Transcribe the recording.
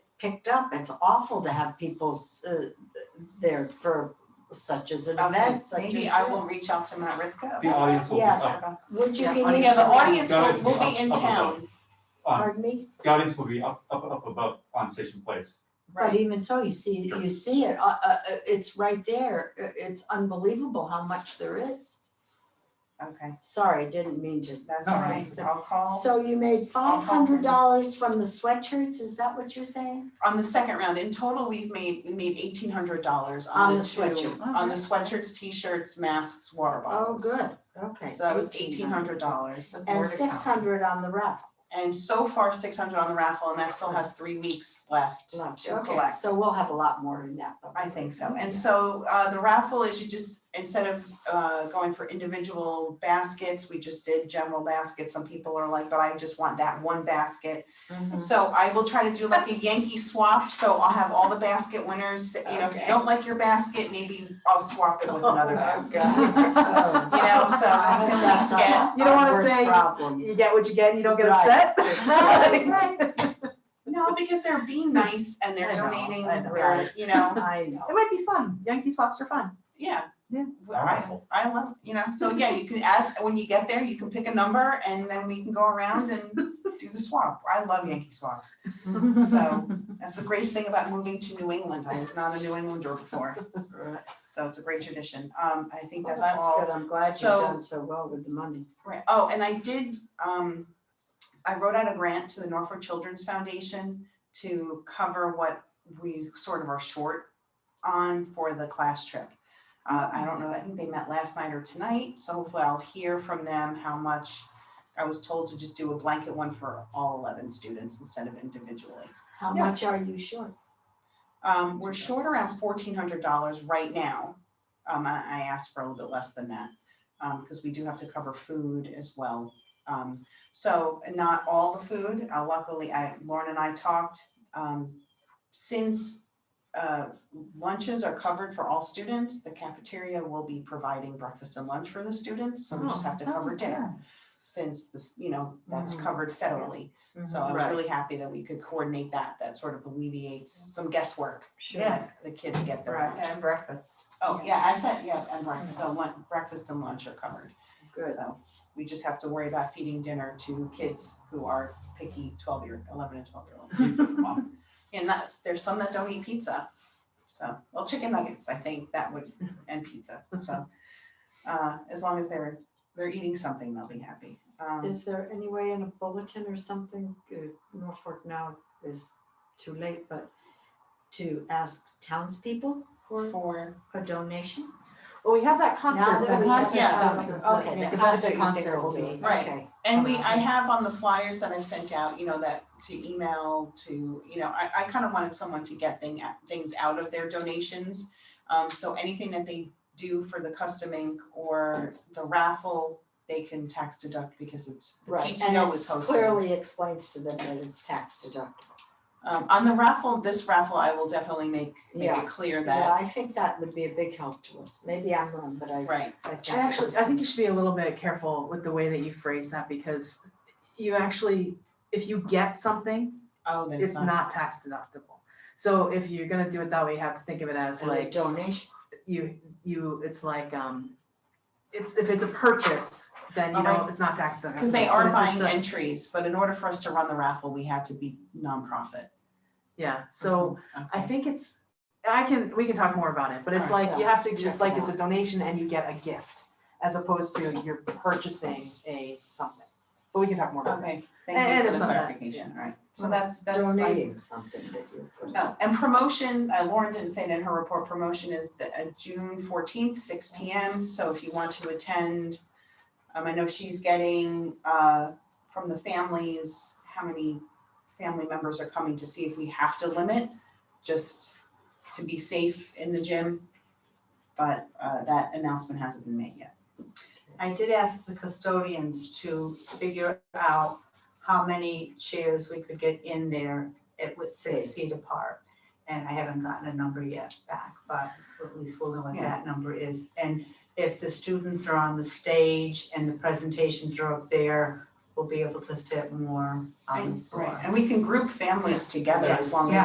picked up. It's awful to have people uh, there for such as an Okay, event, such as maybe I will this. reach out to Matt Risco. The about audience will be Yes. up, that. Would you Yeah, be? yeah, the audience Got will, it. will be in Up- up above. town, on, Pardon me? um, the audience will be up, up, up above on Station Place. But right? even so, you see, Sure. you see it, uh, uh, uh, it's right there. Uh, It's unbelievable how much there is. Okay, Sorry, I didn't mean to. that's No, all right, no, so I'll call, So you made I'll five call them. hundred dollars from the sweatshirts, is that what you're saying? on the second round, in total, we've made, we made eighteen hundred dollars On on the Oh, the two, sweatshirt. on the sweatshirts, t-shirts, masks, water Oh, bottles. good, okay. So that was eighteen hundred dollars. And six hundred on the raffle. And so far, six hundred on the raffle, and that still has three weeks left. to Okay, collect. so we'll have a lot more in that. I think so. And so uh the raffle is you just, instead of uh going for individual baskets, we just did general baskets. Some people are like, but I just want that one basket. Mm-hmm. Mhm. So I will try to do like a Yankee swap, so I'll have all the basket winners, you know, if you Okay. don't like your basket, maybe I'll swap it with another Oh, basket. God. You Um, know, so I can at least get You don't wanna Worst say- Problem. You get what you get, and you don't get Right. upset. Right, No, because they're being nice and they're I know, donating, I know. they're, you know, I know. It might be fun. Yankee swaps are fun. yeah. Yeah. Well, I, I love, you know, so yeah, you can add, when you get there, you can pick a number and then we can go around and do the swap. I love Yankee swaps. Mm-hmm. So that's the greatest thing about moving to New England. I was not a New Englander before, Right. so it's a great tradition. Um, I think Well, that's That's all. good, I'm glad you've So- done so well with the money. Right, oh, and I did, um, I wrote out a grant to the Norfolk Children's Foundation to cover what we sort of are short on for the class trip. Uh, I don't know, I think they met last night or tonight, so hopefully I'll hear from them how much. I was told to just do a blanket one for all eleven students instead of individually. How Yeah. much are you short? Um, we're short around fourteen hundred dollars right now. Um, I, I asked for a little bit less than that, um, because we do have to cover food as well. Um, so not all the food, uh, luckily, I, Lauren and I talked, um, since, uh, lunches are covered for all students, the cafeteria will be providing breakfast and lunch for the students, so we just have to Oh, cover dinner. Since this, you know, that's Mhm. covered federally. Mm-hmm. So I was Right. really happy that we could coordinate that. That sort of alleviates some guesswork. Sure. when The kids get their Right. Mm-hmm. lunch. breakfast. Oh, yeah, I said, yeah, and breakfast, so lun- breakfast and lunch are covered. Good. So we just have to worry about feeding dinner to kids who are picky twelve year, eleven and twelve year olds. Pizza from up. And that's, there's some that don't eat pizza. So, well, chicken nuggets, I think that would, and pizza, so. Uh, as long as they're, they're eating something, they'll be happy. Um, Is there any way in a bulletin or something, uh, Norfolk now is too late, but to ask townspeople for For a donation? Well, we um, have that Now concert. that we have. yeah, Okay, the concert you think will be, Right. okay. And we, I Um, have on the flyers that I've sent out, you know, that to email to, you know, I, I kind of wanted someone to get thing, things out of their donations. Um, so anything that they do for the custom ink or the raffle, they can tax deduct because it's, the Right, and PTO it is hosting. clearly explains to them that it's tax deductible. Um, on the raffle, this raffle, I will definitely make, make Yeah. it clear Yeah, that, I think that would be a big help to us. Maybe I'm wrong, but I, right, I I think. actually, I think you should be a little bit careful with the way that you phrase that because you actually, if you get something, oh, then it's it's not, not tax deductible. So if you're gonna do it that way, you have to think of it as And a like donation, you, you, it's like, um, it's, if it's a purchase, then you know, Alright. it's not tax deductible. because they are But if it's buying a- entries, but in order for us to run the raffle, we had to be nonprofit. Yeah, so I Okay. think it's, I can, we can talk more about it, but it's Alright, like, you yeah, have to, check it's like it it's a donation and you get a gift, as opposed to you're purchasing a something. But we can talk more about it. Okay, And- thank and you for it's the not that, clarification, all right, so Mhm. that's, that's. like- donating something that you put. Oh, and promotion, uh, Lauren didn't say it in her report, promotion is the, uh, June fourteenth, six P M, so if you want to attend. Um, I know she's getting, uh, from the families, how many family members are coming to see if we have to limit, just to be safe in the gym. But, uh, that announcement hasn't been made yet. I did ask the custodians to figure out how many chairs we could get in there. It was six Space. feet apart, and I haven't gotten a number yet back, but at least we'll know what Yeah. that number is. And if the students are on the stage and the presentations are up there, we'll be able to fit more um, on the And- floor. Right, and we can group families together as Yes, long as yeah.